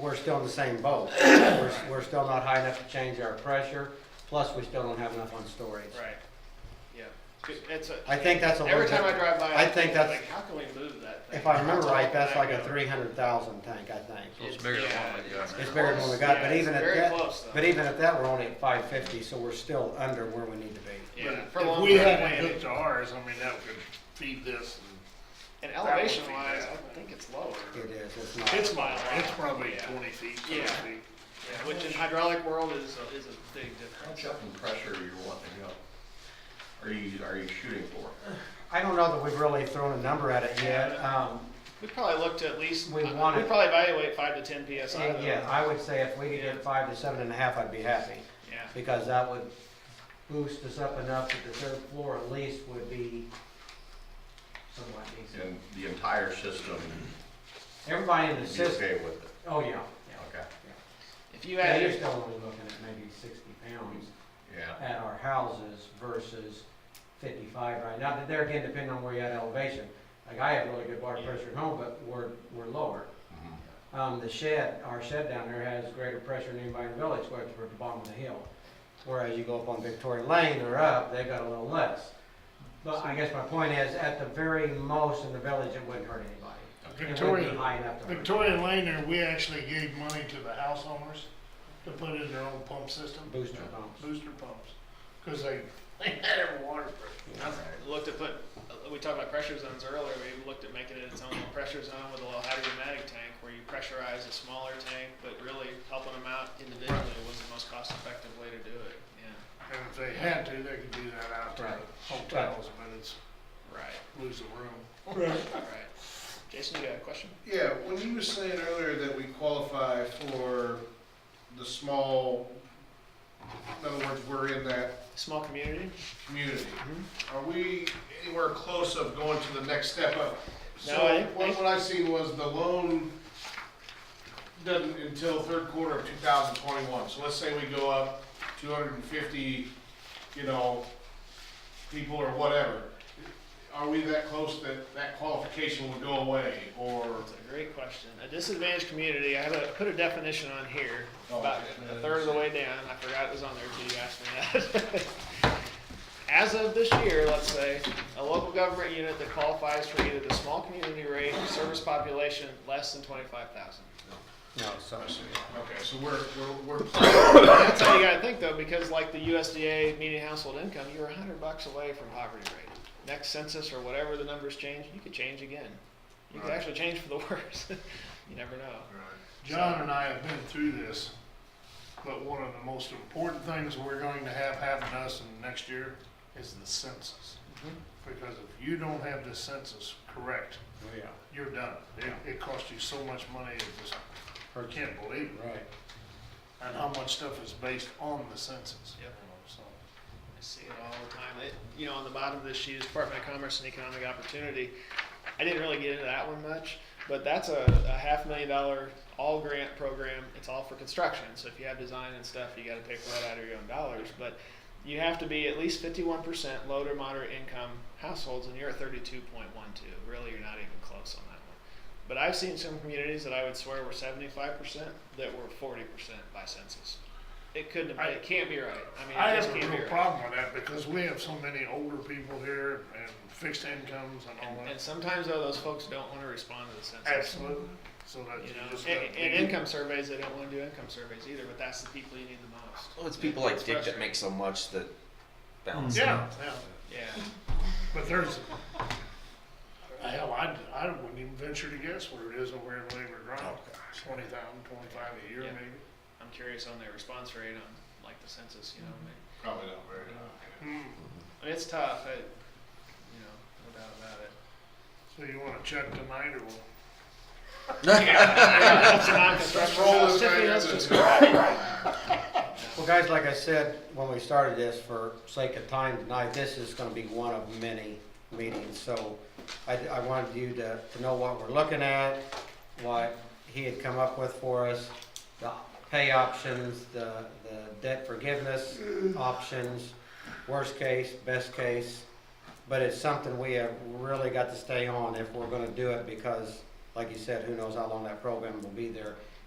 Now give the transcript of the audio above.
we're still in the same boat. We're, we're still not high enough to change our pressure, plus we still don't have enough on storage. Right. Yeah. 'Cause It's a. I think that's a Every little time I bit- drive by, I I think think that's- like, how can we move that thing? If I remember How tall right, can that's that like a go? three hundred thousand tank, I think. So it's bigger than Yeah, what we got It's now. bigger than what we got, Yeah, but it's even at very that, close, though. but even at that, we're only at five fifty, so we're still under where we need to be. Yeah. But For If long we term hadn't planning. hooked to ours, I mean, that could feed this. And would be elevation wise, bad. I think it's lower. It is, it's and It's not, minor, it's probably Yeah. twenty feet, thirty Yeah. feet. Yeah, Which in hydraulic world is, a- is a big difference. How much up in pressure are you wanting to go? Are you, are you shooting for? I don't know that we've really thrown a number at it yet. Um, We probably looked at least, we We probably wanted- evaluate five to ten PSI. though. yeah, I would say if we could get five to seven and a half, I'd be happy. Yeah. because that would boost us up enough that the third floor at least would be somewhat decent. And the entire system, Everybody in you the be system, okay with it? oh yeah, yeah. Okay, If you Yeah, you're add, still only looking at maybe sixty pounds yeah. at our houses versus fifty-five right now. Now, There again, depending on where you at elevation. Like I have really good water pressure at home, but we're, we're lower. mhm. Um, the shed, our shed down there has greater pressure than anybody in the village, where it's at the bottom of the hill. Whereas you go up on Victoria Lane or up, they've got a little less. But I guess my point is, at the very most in the village, it wouldn't hurt anybody. It wouldn't be Victoria, high enough to hurt. Victoria Lane there, we actually gave money to the house owners to put in their own pump system, Booster pumps. booster pumps. Cause they, they had every water break. looked at put, we talked about pressure zones earlier, we looked at making it its own little pressure zone with a little hydromatic tank where you pressurize a smaller tank, but really helping them out individually was the most cost effective way to do it, yeah. And if they had to, they could do that out to Right. the hotels, but it's Right, lose the room. right. Jason, you got a question? Yeah, when you were saying earlier that we qualify for the small, in other words, we're in that Small community? community, are we anywhere close of going to the next step up? No, So I- what, what I seen was the loan doesn't until third quarter of two thousand twenty-one, so let's say we go up two hundred and fifty, you know, people or whatever. Are we that close that that qualification would go away, or? That's a great question. A disadvantaged community, I have a, put a definition on here, Oh, about okay. a third of the way down. I forgot it was on there until you asked me that. As of this year, let's say, a local government unit that qualifies for either the small community rate or service population less than twenty-five thousand. No, so, Okay, so we're, we're, we're That's how you gotta think though, because like the USDA median household income, you're a hundred bucks away from poverty rate. Next census or whatever the numbers change, you could change again. You could Right. actually change for the worse. You never know. John and I have been through this, but one of the most important things we're going to have happen to us in the next year is the census. Mhm. Because if you don't have the census correct, oh yeah, you're done. It, it costs you so much money, it just, I can't believe it. right. And how much stuff is based on the census. Yep. So, I see it all the time. It, you know, on the bottom of this sheet is Department of Commerce and Economic Opportunity. I didn't really get into that one much, but that's a, a half million dollar all grant program. It's all for construction. So if you have design and stuff, you got to pay for that out of your own dollars. But you have to be at least 51% low to moderate income households, and you're at 32.12. Really, you're not even close on that one. But I've seen some communities that I would swear were 75% that were 40% by census. It couldn't have, I- it can't be right. I mean, I it have just a can't be real right. problem with that because we have so many older people here and fixed incomes and all And, and that. sometimes though, those folks don't want to respond to the census. Uh-huh. Absolutely. So that You you know, just. and, gotta and be- income surveys, they don't want to do income surveys either, but that's the people you need the most. Well, Oh, it's people like It's Dick that frustrating. make so much that balance. Yeah, yeah. Yeah. But there's, hell, I, I wouldn't even venture to guess what it is over in Labor Drive. Twenty thousand, twenty-five a year Oh, Yeah. maybe. I'm curious on their response rate on like the census, you know, I mean, Probably not very. Hmm. I mean, it's tough, I, you know, no doubt about it. So you wanna check tonight or what? It's not construction, Roll no, this Tiffany, right that's in. just- Well, guys, like I said, when we started this, for sake of time tonight, this is gonna be one of many meetings, so I, I wanted you to, to know what we're looking at, what he had come up with for us, the pay options, the, the debt forgiveness options, worst case, best case. But it's something we have really got to stay on if we're gonna do it, because, like you said, who knows how long that program will be there.